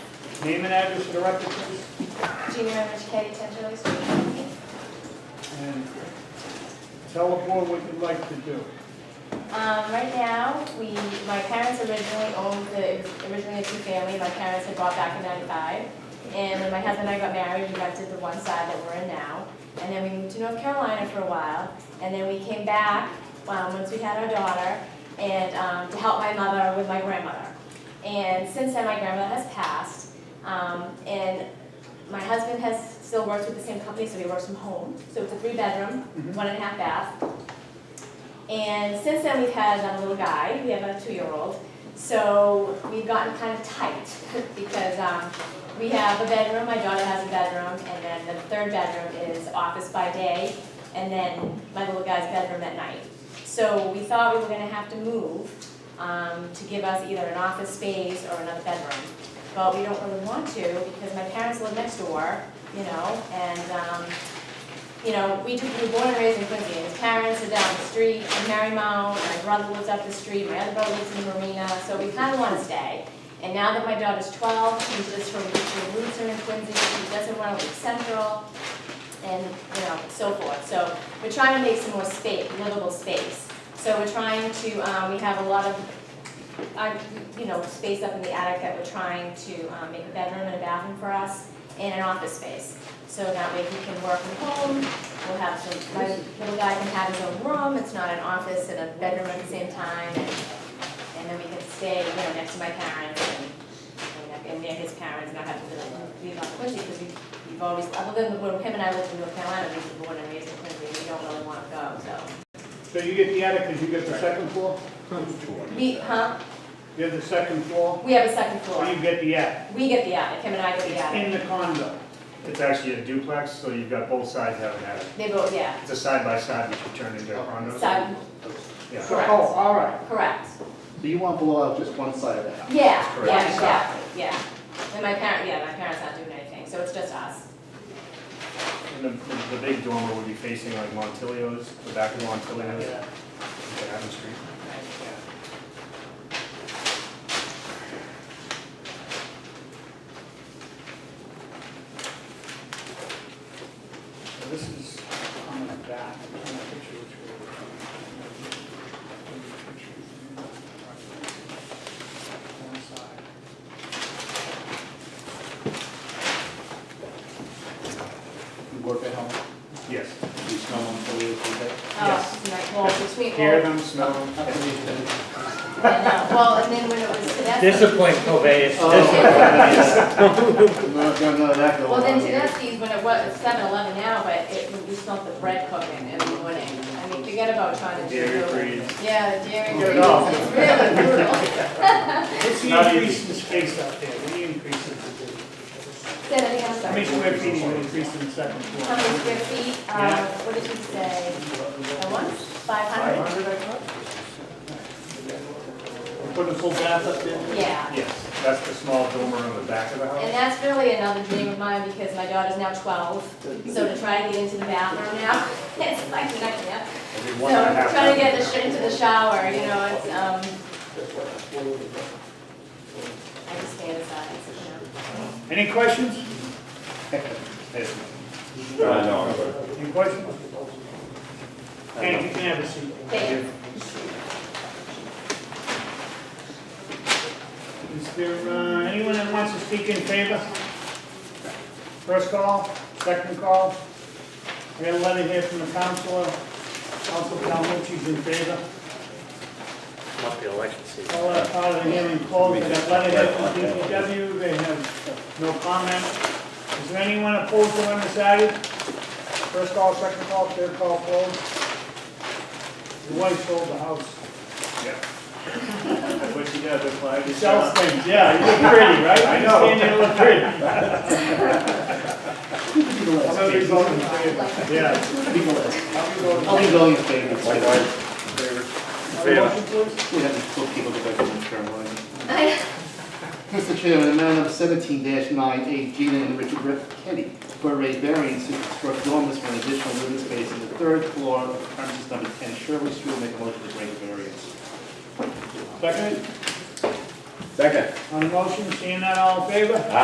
Name and address for the record, please. Junior members Katie Tenterly speaking. And tell the board what you'd like to do. Um, right now, we, my parents originally owned the, it was originally a two-family, my parents had bought back in ninety-five. And when my husband and I got married, we rented the one side that we're in now. And then we moved to North Carolina for a while, and then we came back, um, once we had our daughter, and, um, to help my mother with my grandmother. And since then, my grandmother has passed, um, and my husband has, still works with the same company, so he works from home. So it's a three-bedroom, Mhm. one and a half bath. And since then, we've had a little guy, we have a two-year-old. So we've gotten kind of tight because um, we have a bedroom, my daughter has a bedroom, and then the third bedroom is office by day, and then my little guy's bedroom at night. So we thought we were gonna have to move um, to give us either an office space or another bedroom. But we don't really want to because my parents live next door, you know, and um, you know, we took, we were born and raised in Quincy, and his parents are down the street in Marymount, and my brother lives up the street, my other brother lives in Marina, so we kinda wanna stay. And now that my daughter's twelve, she's just, her her roots are in Quincy, she doesn't wanna leave Central, and, you know, so forth. So we're trying to make some more space, livable space. So we're trying to, um, we have a lot of, uh, you know, space up in the attic that we're trying to, um, make a bedroom and a bathroom for us, and an office space. So that way he can work from home, we'll have some, my little guy can have his own room, it's not an office and a bedroom at the same time, and, and then we can stay, you know, next to my parents and, and near his parents, not have to live, leave out Quincy, because we, we've always, other than the, when him and I lived in North Carolina, we were born and raised in Quincy, we don't really wanna go, so. So you get the attic, because you get the second floor? We, huh, You have the second floor, we have a second or floor, you get the attic? we get the attic, him and I get the It's attic, in the condo. It's actually a duplex, so you've got both sides having that. they both, yeah, It's a side by side, which you turn into a condo. so, Yeah. So, Correct. Oh, all right. correct. So you want to blow out just one side of the house? Yeah, Correct. yeah, exactly, yeah. And my parent, yeah, my parents not doing anything, so it's just us. And the, the the big dormer would be facing like Montilio's, the back of Montilio's. on Adam Street. So this is on the back, I'm trying to picture which way we're coming. One side. You work at home, Yes. you snow on the way to the Oh, right, well, between, Hear well, them, smell them. I know. well, and then when it was Tedeschi. Disappoint Covey's. Oh. No, no, no, that goes on. Well, then Tedeschi's, when it was seven eleven now, but it, we smelled the bread cooking in the morning. I mean, forget about trying to. do- Dairy free. Yeah, the dairy free, Get it off. it's really brutal. What's Not the easy. increase in space out there? What do you increase it to? Say that again, I'm How many sorry. square feet you increase in the second How floor? many square feet, uh, Yeah. what did you say? The one, five hundred? Put a full bath up there? Yeah. Yes, that's the small dormer on the back of the And house. that's really another dream of mine because my daughter's now twelve, so to try to get into the bathroom now, it's like a nightmare. Every So one and a half trying to get the, bedroom. sh- into the shower, you know, it's, um. I just stay inside, you know. Any questions? Yes. Any questions? Hank, you can have a seat. Thank you. Is there uh, anyone that wants to speak in favor? First call, second call. We got a letter here from the counselor. Council Calhoun's in favor. Must be election season. All that part of the hearing closed. We got a letter here from DPW. They have no comment. Is there anyone opposed or undecided? First call, second call, third call closed. Your wife sold the house. That's what you got, the flag is Sells down. things, yeah, you look pretty, right? I know. You stand there and look pretty. So you're voting in favor. Yeah. I'll be going in favor. It's like, why- Motion, please? We have to put people to bed in the term, why? Mr. Chairman, in matter number seventeen nine eight, Gina and Richard Riff Kenny, for a raised variance to construct dormers for an additional living space on the third floor of premises number ten Shirley Street, make a motion to grant the variance. Second, Second. on the motion, seeing that all in favor?